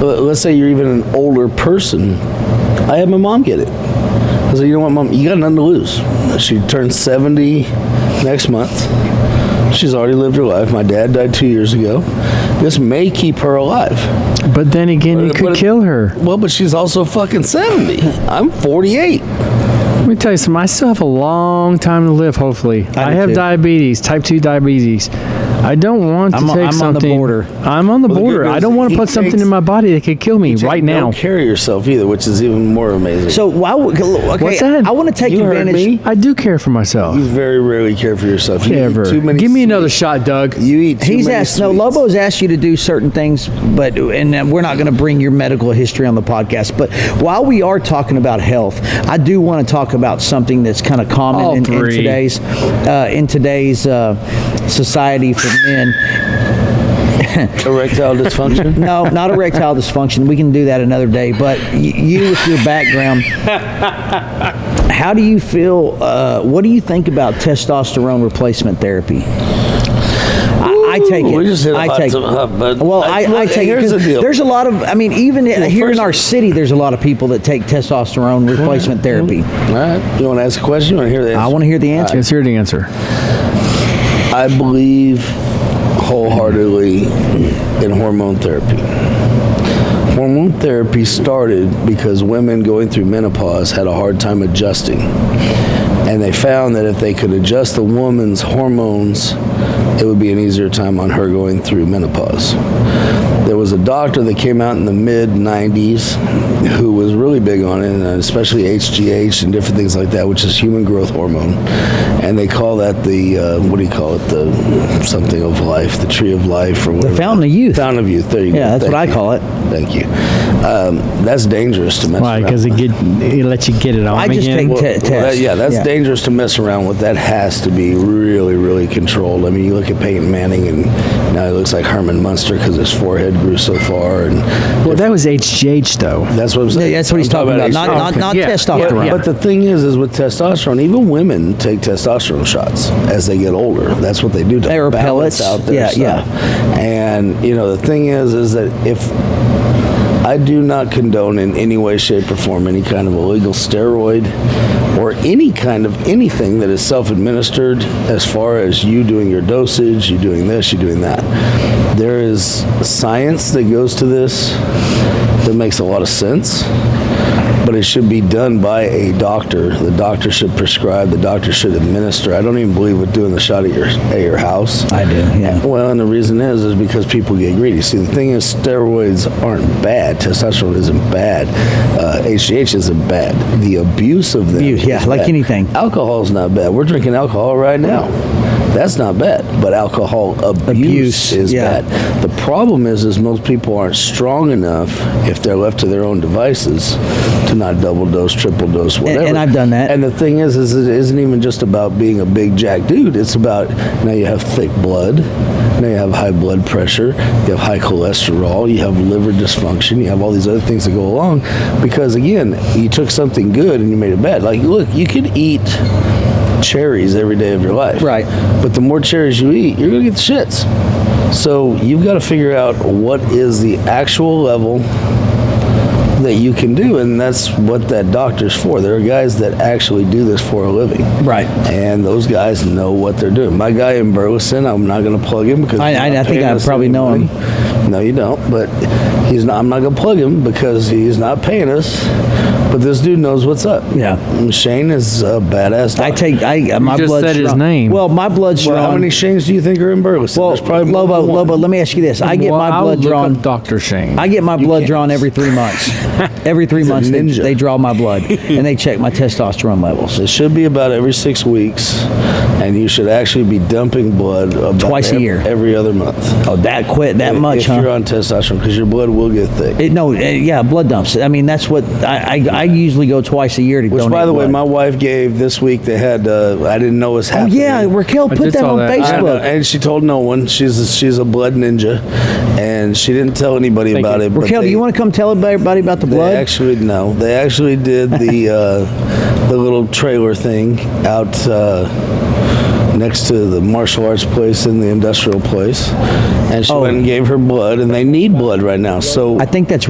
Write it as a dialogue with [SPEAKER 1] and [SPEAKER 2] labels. [SPEAKER 1] But let's say you're even an older person. I had my mom get it. I said, you know what, mom, you got nothing to lose. She turned 70 next month. She's already lived her life. My dad died two years ago. This may keep her alive.
[SPEAKER 2] But then again, you
[SPEAKER 1] But-
[SPEAKER 2] could
[SPEAKER 1] but-
[SPEAKER 2] kill her.
[SPEAKER 1] Well, but she's also fucking 70. I'm 48.
[SPEAKER 2] Let me tell you something. I still have a long time to live. Hopefully, I,
[SPEAKER 3] do
[SPEAKER 2] have
[SPEAKER 3] too.
[SPEAKER 2] diabetes, type two diabetes. I don't want to
[SPEAKER 3] I'm on-
[SPEAKER 2] take
[SPEAKER 3] I'm on the
[SPEAKER 2] something.
[SPEAKER 3] border.
[SPEAKER 2] I'm on the
[SPEAKER 1] Well, the good
[SPEAKER 2] border. I
[SPEAKER 1] news
[SPEAKER 2] don't
[SPEAKER 1] is
[SPEAKER 2] want to
[SPEAKER 1] he
[SPEAKER 2] put something
[SPEAKER 1] takes-
[SPEAKER 2] in my body that could kill me right now.
[SPEAKER 1] Don't carry yourself either, which is even more amazing.
[SPEAKER 3] So why? would- Okay,
[SPEAKER 2] What's that?
[SPEAKER 3] I want to take
[SPEAKER 1] You heard
[SPEAKER 3] advantage.
[SPEAKER 1] me.
[SPEAKER 2] I do care for myself.
[SPEAKER 1] you very rarely care for yourself. You eat
[SPEAKER 2] Ever.
[SPEAKER 1] too many
[SPEAKER 2] Give me another
[SPEAKER 1] sweets.
[SPEAKER 2] shot, Doug.
[SPEAKER 1] You eat too
[SPEAKER 3] He's
[SPEAKER 1] many
[SPEAKER 3] asked. No,
[SPEAKER 1] sweets.
[SPEAKER 3] Lobo's asked you to do certain things, but and uh, we're not going to bring your medical history on the podcast. But while we are talking about health, I do want to talk about something that's kind of
[SPEAKER 2] All
[SPEAKER 3] common in, in
[SPEAKER 2] three.
[SPEAKER 3] today's uh, in today's uh, society for men.
[SPEAKER 1] Erectile dysfunction.
[SPEAKER 3] No, not erectile dysfunction. We can do that another day. But y- you, with your background, how do you feel? Uh, what do you think about testosterone replacement therapy? I, I take it.
[SPEAKER 1] We just hit a
[SPEAKER 3] I
[SPEAKER 1] hot
[SPEAKER 3] take
[SPEAKER 1] to- hot button.
[SPEAKER 3] Well, I, I,
[SPEAKER 1] look,
[SPEAKER 3] take
[SPEAKER 1] here's
[SPEAKER 3] it. 'cause
[SPEAKER 1] the deal.
[SPEAKER 3] There's a lot of. I mean, even here in
[SPEAKER 1] first-
[SPEAKER 3] our city, there's a lot of people that take testosterone replacement therapy.
[SPEAKER 1] All right. You want to ask a question? You want to hear the answer?
[SPEAKER 3] I want to hear the
[SPEAKER 1] uh,
[SPEAKER 3] answer.
[SPEAKER 2] Let's hear the answer.
[SPEAKER 1] I believe wholeheartedly in hormone therapy. Hormone therapy started because women going through menopause had a hard time adjusting. And they found that if they could adjust the woman's hormones, it would be an easier time on her going through menopause. There was a doctor that came out in the mid 90s who was really big on it, and especially HGH and different things like that, which is human growth hormone. And they call that the, uh, what do you call it? The something of life, the tree of life, or whatever.
[SPEAKER 3] fountain of youth.
[SPEAKER 1] Fountain of youth. There you go.
[SPEAKER 3] Yeah, that's what
[SPEAKER 1] Thank
[SPEAKER 3] I
[SPEAKER 1] you.
[SPEAKER 3] call it.
[SPEAKER 1] Thank you. Um, that's dangerous to mess
[SPEAKER 2] Why?
[SPEAKER 1] around.
[SPEAKER 2] Because it get it lets you get it on
[SPEAKER 3] I just
[SPEAKER 2] again.
[SPEAKER 3] take
[SPEAKER 2] Well,
[SPEAKER 3] te-
[SPEAKER 1] Well,
[SPEAKER 3] test.
[SPEAKER 1] that- yeah, that's dangerous to mess around with. That has to be really, really controlled. I mean, you look at Peyton Manning, and now he looks like Herman Munster because his forehead grew so far, and
[SPEAKER 2] that was HGH though.
[SPEAKER 1] that's what I'm saying.
[SPEAKER 3] Yeah, that's what
[SPEAKER 1] I'm
[SPEAKER 3] he's talking about. Not,
[SPEAKER 1] HGH.
[SPEAKER 3] not, not
[SPEAKER 2] Yeah.
[SPEAKER 1] But-
[SPEAKER 3] testosterone.
[SPEAKER 1] But the thing is, is with testosterone, even women take testosterone shots as they get older. That's what they do to
[SPEAKER 3] They repel
[SPEAKER 1] balance
[SPEAKER 3] it.
[SPEAKER 1] out their
[SPEAKER 3] Yeah, yeah.
[SPEAKER 1] stuff. And you know, the thing is, is that if I do not condone in any way, shape, or form any kind of illegal steroid or any kind of anything that is self administered as far as you doing your dosage, you doing this, you doing that. There is science that goes to this that makes a lot of sense, but it should be done by a doctor. The doctor should prescribe, the doctor should administer. I don't even believe with doing the shot at your, at your house.
[SPEAKER 3] I do. Yeah.
[SPEAKER 1] Well, and the reason is is because people get greedy. See, the thing is, steroids aren't bad. Testosterone isn't bad. Uh, HGH isn't bad. The abuse of them,
[SPEAKER 3] Abuse, yeah,
[SPEAKER 1] is
[SPEAKER 3] like
[SPEAKER 1] bad.
[SPEAKER 3] anything.
[SPEAKER 1] Alcohol's not bad. We're drinking alcohol right now. That's not bad. But alcohol abuse,
[SPEAKER 3] Abuse,
[SPEAKER 1] is
[SPEAKER 3] yeah.
[SPEAKER 1] bad. The problem is, is most people aren't strong enough if they're left to their own devices to not double dose, triple dose, whatever.
[SPEAKER 3] and I've done that.
[SPEAKER 1] And the thing is, is it isn't even just about being a big jack dude. It's about now you have thick blood, now you have high blood pressure, you have high cholesterol, you have liver dysfunction, you have all these other things that go along. Because again, you took something good and you made it bad. Like, look, you could eat cherries every day of your life,
[SPEAKER 3] Right.
[SPEAKER 1] But the more cherries you eat, you're gonna get the shits. So you've got to figure out what is the actual level that you can do, and that's what that doctor's for. There are guys that actually do this for a living.
[SPEAKER 3] Right.
[SPEAKER 1] And those guys know what they're doing. My guy in Burleson, I'm not going to plug him because
[SPEAKER 3] I-
[SPEAKER 1] he's
[SPEAKER 3] I-
[SPEAKER 1] not
[SPEAKER 3] I think
[SPEAKER 1] paying
[SPEAKER 3] I
[SPEAKER 1] us
[SPEAKER 3] probably
[SPEAKER 1] any
[SPEAKER 3] know him.
[SPEAKER 1] money. No, you don't. But he's not. I'm not going to plug him because he's not paying us. But this dude knows what's up.
[SPEAKER 3] Yeah.
[SPEAKER 1] And Shane is a badass. Doctor.
[SPEAKER 3] I take. I uh, my
[SPEAKER 2] just
[SPEAKER 3] blood's
[SPEAKER 2] said his
[SPEAKER 3] strong.
[SPEAKER 2] name.
[SPEAKER 3] Well, my blood's
[SPEAKER 1] Well, how
[SPEAKER 3] strong.
[SPEAKER 1] many Shanes do you think are in Burleson?
[SPEAKER 3] Well,
[SPEAKER 1] There's probably more
[SPEAKER 3] Lobo,
[SPEAKER 1] than one.
[SPEAKER 3] Lobo, let me ask you this. I get
[SPEAKER 2] Well,
[SPEAKER 3] my
[SPEAKER 2] I'll
[SPEAKER 3] blood
[SPEAKER 2] look
[SPEAKER 3] drawn.
[SPEAKER 2] up Dr. Shane.
[SPEAKER 3] I get my blood drawn every three months. every three
[SPEAKER 1] a
[SPEAKER 3] months, they,
[SPEAKER 1] ninja.
[SPEAKER 3] they draw my blood and they check my testosterone levels.
[SPEAKER 1] It should be about every six weeks, and you should actually be dumping blood about
[SPEAKER 3] Twice a
[SPEAKER 1] ev-
[SPEAKER 3] year.
[SPEAKER 1] every other month.
[SPEAKER 3] Oh, that quit that
[SPEAKER 1] If-
[SPEAKER 3] much,
[SPEAKER 1] if
[SPEAKER 3] huh?
[SPEAKER 1] you're on testosterone, because your blood will get thick.
[SPEAKER 3] It, no, eh, yeah, blood dumps. I mean, that's what I, I, I usually go twice a year to
[SPEAKER 1] Which,
[SPEAKER 3] donate
[SPEAKER 1] by the way,
[SPEAKER 3] blood.
[SPEAKER 1] my wife gave this week. They had uh, I didn't know was
[SPEAKER 3] oh
[SPEAKER 1] happening.
[SPEAKER 3] yeah, Raquel
[SPEAKER 2] I
[SPEAKER 3] put
[SPEAKER 2] did
[SPEAKER 3] that
[SPEAKER 2] saw
[SPEAKER 3] on
[SPEAKER 2] that. I
[SPEAKER 1] I know,
[SPEAKER 3] Facebook.
[SPEAKER 1] and she told no one. She's a, she's a blood ninja, and she didn't tell anybody about it. but
[SPEAKER 3] Raquel, do
[SPEAKER 1] they-
[SPEAKER 3] you want to come tell everybody about the
[SPEAKER 1] They
[SPEAKER 3] blood?
[SPEAKER 1] actually no. They actually did the uh, the little trailer thing out uh, next to the martial arts place and the industrial place, and she
[SPEAKER 3] Oh.
[SPEAKER 1] went and gave her blood, and they need blood right now. So
[SPEAKER 3] I think that's